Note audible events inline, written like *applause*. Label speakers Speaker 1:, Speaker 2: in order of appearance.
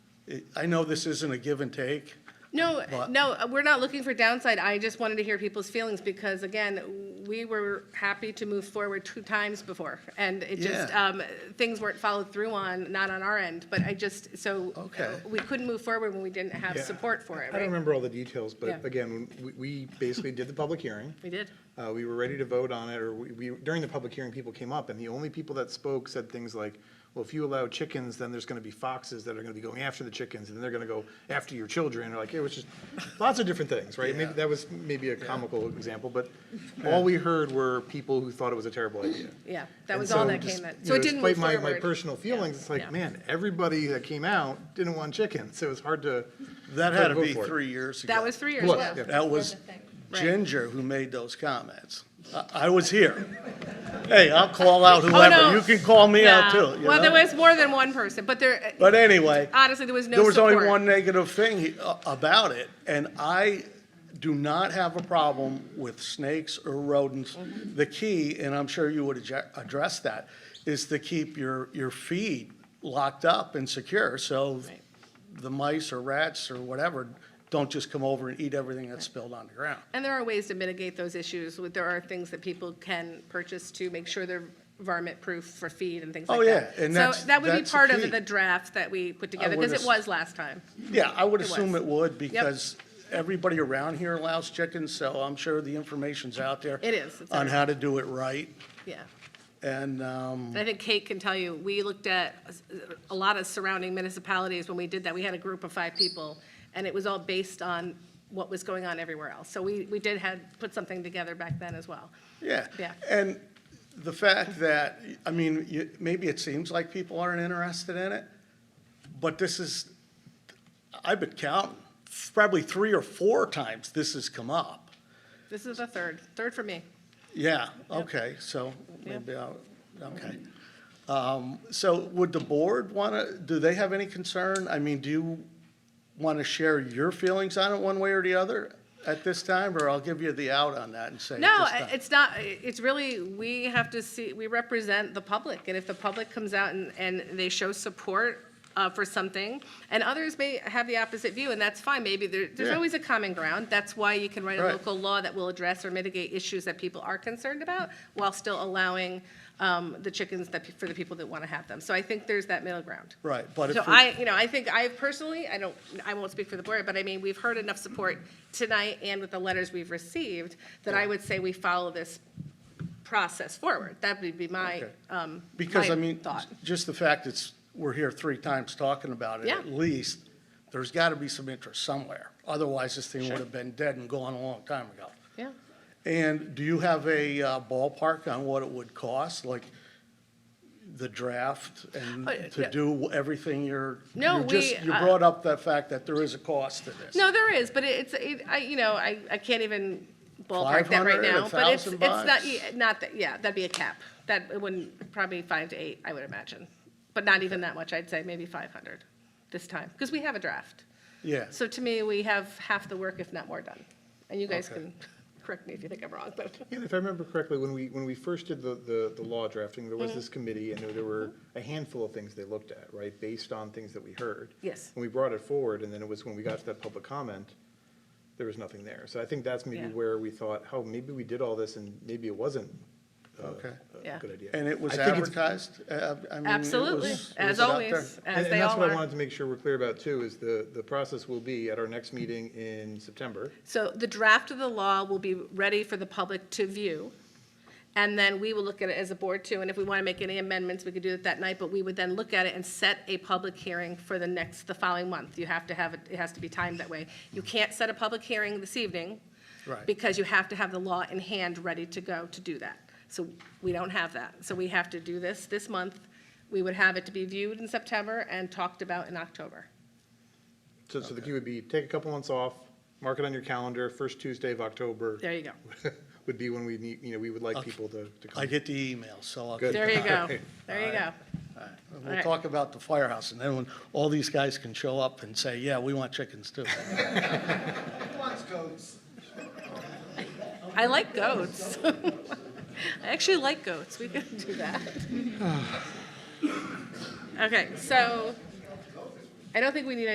Speaker 1: I know this isn't a give and take.
Speaker 2: No,
Speaker 1: But-
Speaker 2: no, uh, we're not looking for downside. I just wanted to hear people's feelings because again, we were happy to move forward two times before. And it just,
Speaker 1: Yeah.
Speaker 2: um, things weren't followed through on, not on our end, but I just, so. uh,
Speaker 1: Okay.
Speaker 2: We couldn't move forward when we didn't have
Speaker 3: Yeah,
Speaker 2: support for it,
Speaker 3: I don't
Speaker 2: right?
Speaker 3: remember all the details,
Speaker 2: Yeah.
Speaker 3: but again, we, we basically did the
Speaker 2: *laughs*
Speaker 3: public hearing.
Speaker 2: We did.
Speaker 3: Uh, we were ready to vote on it, or we, we, during the public hearing, people came up, and the only people that spoke said things like, well, if you allow chickens, then there's gonna be foxes that are gonna be going after the chickens, and they're gonna go after your children, or like, it was just lots of different things, right? Maybe, that was maybe a comical example, but all we heard were people who thought it was a terrible idea.
Speaker 2: Yeah, that
Speaker 3: And
Speaker 2: was all
Speaker 3: so
Speaker 2: that
Speaker 3: just,
Speaker 2: came in.
Speaker 3: you
Speaker 2: So
Speaker 3: know,
Speaker 2: it didn't move
Speaker 3: Despite my, my
Speaker 2: forward.
Speaker 3: personal feelings, it's
Speaker 2: yeah.
Speaker 3: like, man, everybody that came out didn't want chickens, so it was hard to.
Speaker 1: That had to
Speaker 3: vote
Speaker 1: be
Speaker 3: for it.
Speaker 1: three years ago.
Speaker 2: That was three years
Speaker 3: Look,
Speaker 2: ago.
Speaker 3: yeah.
Speaker 1: That was
Speaker 2: Right.
Speaker 1: Ginger who made those comments. I, I was here. Hey, I'll call out
Speaker 2: Oh, no.
Speaker 1: whoever. You can call me out
Speaker 2: Yeah.
Speaker 1: too, you
Speaker 2: Well, there
Speaker 1: know?
Speaker 2: was more than one person, but there,
Speaker 1: But anyway.
Speaker 2: honestly, there was no
Speaker 1: There was only
Speaker 2: support.
Speaker 1: one negative thing he- a- about it, and I do not have a problem with snakes or rodents.
Speaker 2: Mm-hmm.
Speaker 1: The key, and I'm sure you would adja- address that, is to keep your, your feed locked up and secure, so
Speaker 2: Right.
Speaker 1: the mice or rats or whatever don't just come over and eat everything that's spilled on the ground.
Speaker 2: And there are ways to mitigate those issues. with- There are things that people can purchase to make sure they're varmint-proof for feed and things
Speaker 1: Oh,
Speaker 2: like that.
Speaker 1: yeah, and that's-
Speaker 2: So that would be
Speaker 1: that's the
Speaker 2: part
Speaker 1: key.
Speaker 2: of the draft that we put together,
Speaker 1: would
Speaker 2: because it
Speaker 1: as-
Speaker 2: was last time.
Speaker 1: Yeah, I would assume
Speaker 2: was.
Speaker 1: it would, because everybody around here allows chickens, so I'm sure the information's out there.
Speaker 2: It is, it's
Speaker 1: On
Speaker 2: everywhere.
Speaker 1: how to do it right,
Speaker 2: Yeah.
Speaker 1: and, um,
Speaker 2: And I think Kate can tell you, we looked at a lot of surrounding municipalities when we did that. We had a group of five people, and it was all based on what was going on everywhere else. So we, we did had, put something together back then as well.
Speaker 1: Yeah.
Speaker 2: Yeah.
Speaker 1: And the fact that, I mean, you, maybe it seems like people aren't interested in it, but this is, I've been counting, probably three or four times this has come up.
Speaker 2: This is the third, third for me.
Speaker 1: Yeah, okay, so maybe I'll, okay. Um, so would the board wanna, do they have any concern? I mean, do you wanna share your feelings on it one way or the other at this time? Or I'll give you the out on that and say at
Speaker 2: No,
Speaker 1: this time?
Speaker 2: it's not, it's really, we have to see, we represent the public, and if the public comes out and, and they show support uh, for something, and others may have the opposite view, and that's fine, maybe there, there's
Speaker 1: Yeah.
Speaker 2: always a common ground. That's why you can write a
Speaker 1: Right.
Speaker 2: local law that will address or mitigate issues that people are concerned about, while still allowing um, the chickens that, pe- for the people that want to have them. So I think there's that middle ground.
Speaker 1: Right, but if
Speaker 2: So
Speaker 1: we-
Speaker 2: I, you know, I think I personally, I don't, I won't speak for the board, but I mean, we've heard enough support tonight and with the letters we've received that I would say we follow this process forward. That would be my,
Speaker 1: Okay.
Speaker 2: um,
Speaker 1: Because,
Speaker 2: my
Speaker 1: I mean,
Speaker 2: Thought.
Speaker 1: just the fact it's, we're here three times talking about it,
Speaker 2: Yeah.
Speaker 1: at least, there's got to be some interest somewhere. Otherwise, this thing would have been dead and gone a long time ago.
Speaker 2: Yeah.
Speaker 1: And do you have a uh, ballpark on what it would cost, like the draft and
Speaker 2: Uh,
Speaker 1: to
Speaker 2: yeah.
Speaker 1: do everything you're?
Speaker 2: No,
Speaker 1: you just-
Speaker 2: we,
Speaker 1: You
Speaker 2: uh,
Speaker 1: brought up the fact that there is a cost to this.
Speaker 2: No, there is, but it- it's, it, I, you know, I, I can't even ballpark that
Speaker 1: 500,
Speaker 2: right now. But it's, it's
Speaker 1: 1,000
Speaker 2: not,
Speaker 1: bucks?
Speaker 2: yeah, not, that- yeah, that'd be a cap. That, it wouldn't, probably five to eight, I would imagine. But not even that much, I'd say maybe five hundred this time, because we have a draft.
Speaker 1: Yeah,
Speaker 2: So to me, we have half the work, if not more, done. And you guys
Speaker 1: Okay.
Speaker 2: can correct me if you think I'm wrong, but,
Speaker 3: And if I remember correctly, when we, when we first did the, the, the law drafting, there
Speaker 2: Mm-hmm.
Speaker 3: was this committee, and there, there were a handful of things they looked at, right, based on things that we heard.
Speaker 2: Yes.
Speaker 3: And we brought it forward, and then it was when we got to that public comment, there was nothing there. So I think that's maybe
Speaker 2: Yeah.
Speaker 3: where we thought, oh, maybe we did all this, and maybe it wasn't uh,
Speaker 1: Okay.
Speaker 3: a
Speaker 2: Yeah.
Speaker 3: good idea.
Speaker 1: and it was
Speaker 3: I think it's-
Speaker 1: advertised, Uh, I mean, it
Speaker 2: absolutely,
Speaker 1: was- it was
Speaker 2: as
Speaker 1: out
Speaker 2: always,
Speaker 1: there.
Speaker 2: as
Speaker 3: And-
Speaker 2: they
Speaker 3: And that's
Speaker 2: all
Speaker 3: what I
Speaker 2: are.
Speaker 3: wanted to make sure we're clear about, too, is the, the process will be at our next meeting in September.
Speaker 2: So the draft of the law will be ready for the public to view, and then we will look at it as a board too. And if we want to make any amendments, we could do it that night, but we would then look at it and set a public hearing for the next, the following month. You have to have, it. it has to be timed that way. You can't set a public hearing this evening.
Speaker 1: Right.
Speaker 2: Because you have to have the law in hand, ready to go to do that. So we don't have that. So we have to do this this month. We would have it to be viewed in September and talked about in October.
Speaker 3: So, so the key would be, take a couple months off, mark it on your calendar, first Tuesday of October.
Speaker 2: There you go.
Speaker 3: would be when we need, you know, we would like people to, to
Speaker 1: I
Speaker 3: come.
Speaker 1: get the email, so I'll.
Speaker 3: Good.
Speaker 2: There you
Speaker 1: *laughs*
Speaker 2: go.
Speaker 3: Alright.
Speaker 2: There you go.
Speaker 1: We'll
Speaker 2: Alright.
Speaker 1: talk about the firehouse, and then when all these guys can show up and say, yeah, we want chickens too.
Speaker 2: I like goats. *laughs* I actually like goats. We could do that. Okay, so I don't think we need